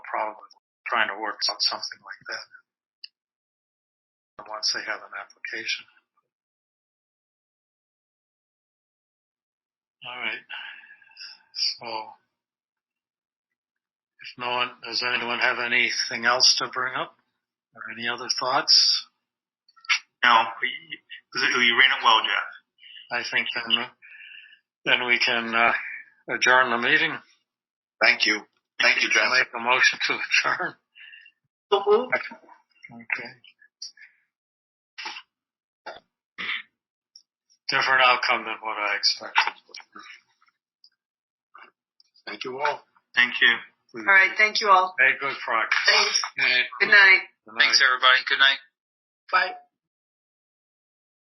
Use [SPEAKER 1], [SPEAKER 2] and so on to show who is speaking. [SPEAKER 1] all with trying to work on something like that once they have an application. All right. So, if no one, does anyone have anything else to bring up or any other thoughts?
[SPEAKER 2] No, you, you ran it well, Jeff.
[SPEAKER 1] I think then, then we can uh, adjourn the meeting.
[SPEAKER 3] Thank you. Thank you, Jeff.
[SPEAKER 1] Make a motion to adjourn.
[SPEAKER 4] So moved.
[SPEAKER 1] Okay. Different outcome than what I expected.
[SPEAKER 3] Thank you all.
[SPEAKER 2] Thank you.
[SPEAKER 4] All right. Thank you all.
[SPEAKER 1] Made good progress.
[SPEAKER 4] Thanks.
[SPEAKER 1] Good
[SPEAKER 4] Good night.
[SPEAKER 1] night.
[SPEAKER 5] Thanks, everybody. Good night.
[SPEAKER 4] Bye.